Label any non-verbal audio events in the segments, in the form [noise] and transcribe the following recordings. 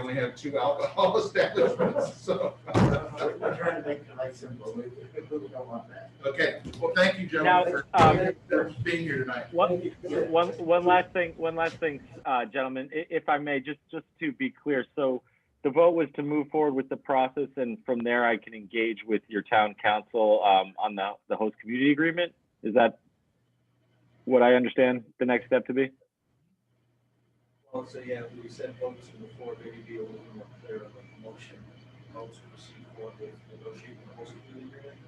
only have two alcohol [laughs] establishments, so. uh, We're trying to make the life simple. We we don't want that. Okay, well, thank you, Now, gentlemen, for um, for being here tonight. One, one, one last thing, one last thing, uh, gentlemen, i- if I may, just, just to be clear. So the vote was to move forward with the process and from there I can engage with your town council, um, on the, the host community agreement? Is that what I understand the next step to be? Well, so yeah, we said votes before, maybe be a little more clear on the motion, votes to proceed forward with negotiating the host community agreement.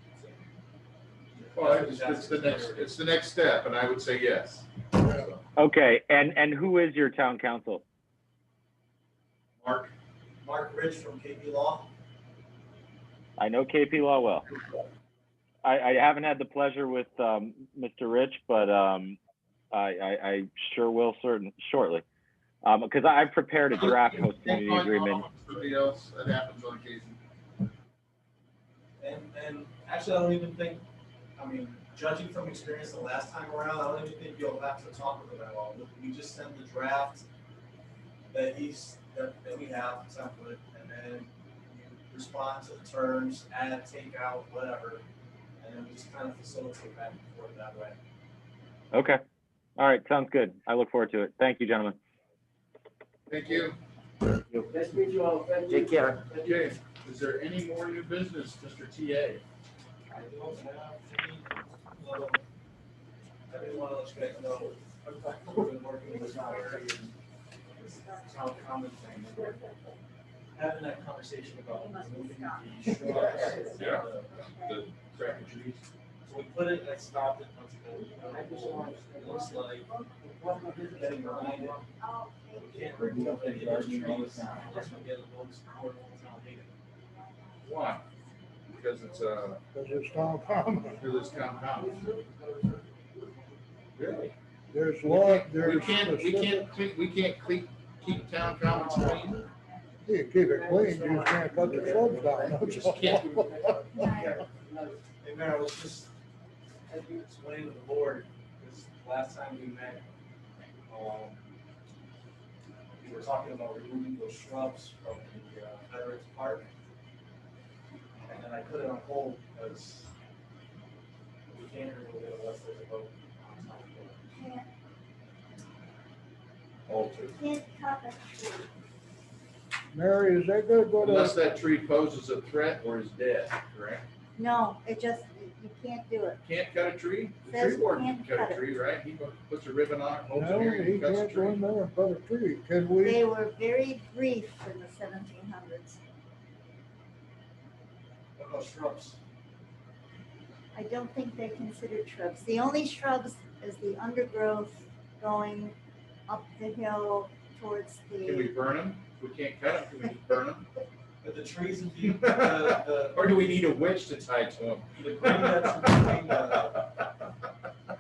So, yeah, Well, that's- it's, that's it's the next, it's the next step, and I would say yes. So, Okay, and, and who is your town council? Mark? Mark Rich from KB Law. I know KP Law well. I, I haven't had the pleasure with, um, Mr. Rich, but, um, I, I, I sure will certain, shortly. Um, because I prepared a draft host community agreement. Somebody else, that happens on occasion. And, and actually, I don't even think, I mean, judging from experience the last time around, I don't even think you'll have to talk with them at all. We just send the draft that he's, that, that we have template, and then you respond to the terms, add, take out, whatever. And then we just kind of facilitate back and forth that way. Okay. All right, sounds good. I look forward to it. Thank you, gentlemen. Thank you. Nice meet you all. Take care. Okay, is there any more new business, Mr. TA? I don't have any, little I didn't want to let you guys know, I've been working with Tyler and this town common thing. and Having that conversation about moving the uh, shrubs. Yeah. The crap and trees. So we put it, I stopped it once ago. It looks like getting reminded, we can't remove any of those trees unless we get a little support from town meeting. Why? Because it's, uh, Because it's Tom Palmer. because it's compound. Really? There's law, there's. We can't, we specific- can't, cle- we can't cle- keep town commons clean? You can keep it clean, you just can't cut the shrubs down. We just can't. Hey, Mayor, I was just explaining to the board, because last time we met, um, we were talking about removing those shrubs from the uh, Veterans Park. And then I put it on hold because we can't remove it unless there's a vote. alter. Mary, is that gonna uh, go Unless to, that tree poses a threat or is dead, correct? No, it just, you can't do it. Can't cut a tree? The tree Says warden can't can cut cut a it. tree, right? He puts a ribbon on, it, holds it no, here, he he cuts a can't go tree. in there and cut a tree. Can we, They were very brief in the seventeen hundreds. What about shrubs? I don't think they considered shrubs. The only shrubs is the undergrowth going up the hill towards Can we the, burn them? If we can't cut them, can we just burn them? But the trees and the, the, Or do we need a witch to tie to them? the, the green that's in between, uh,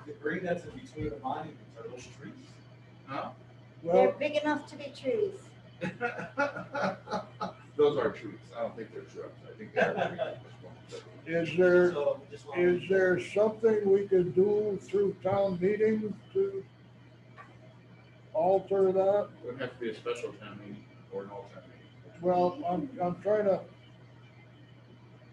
the green that's in between the monuments are those trees. Huh? [laughs] they're well, big enough to be trees. Those are trees. I don't think they're shrubs. I think they're trees. is there, So just wanted- is there something we can do through town meeting to alter that? It would have to be a special town meeting or an all town meeting. Well, I'm, I'm trying to,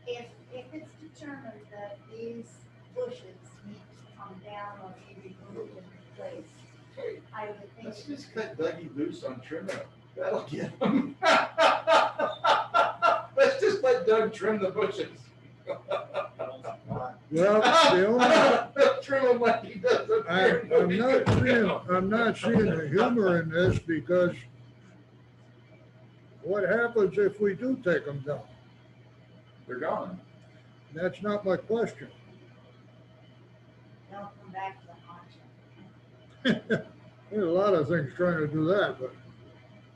If, if it's determined that these bushes need to come down or be removed and replaced, Hey, I would think. Let's just cut Dougie loose on trim it. That'll get him. [laughs] Let's just let Doug trim the bushes. I don't think not. well, the only, Trim them like he does up I, there. I'm not seeing, I'm not seeing the humor in this because what happens if we do take them down? They're gone. That's not my question. [laughs] They'll come back to the haunch. There's a lot of things trying to do that, but,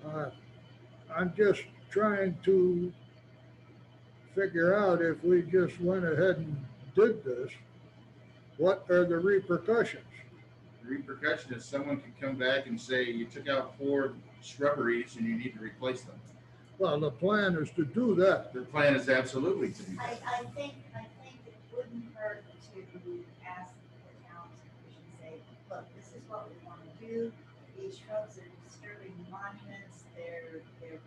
uh, I'm just trying to figure out if we just went ahead and did this, what are the repercussions? The Repercussion is someone can come back and say, you took out four shrubberies and you need to replace them. Well, the plan is to do that. Their plan is absolutely to do I, that. I think, I think it wouldn't hurt to ask the town commission, say, look, this is what we want to do. These shrubs are disturbing the monument.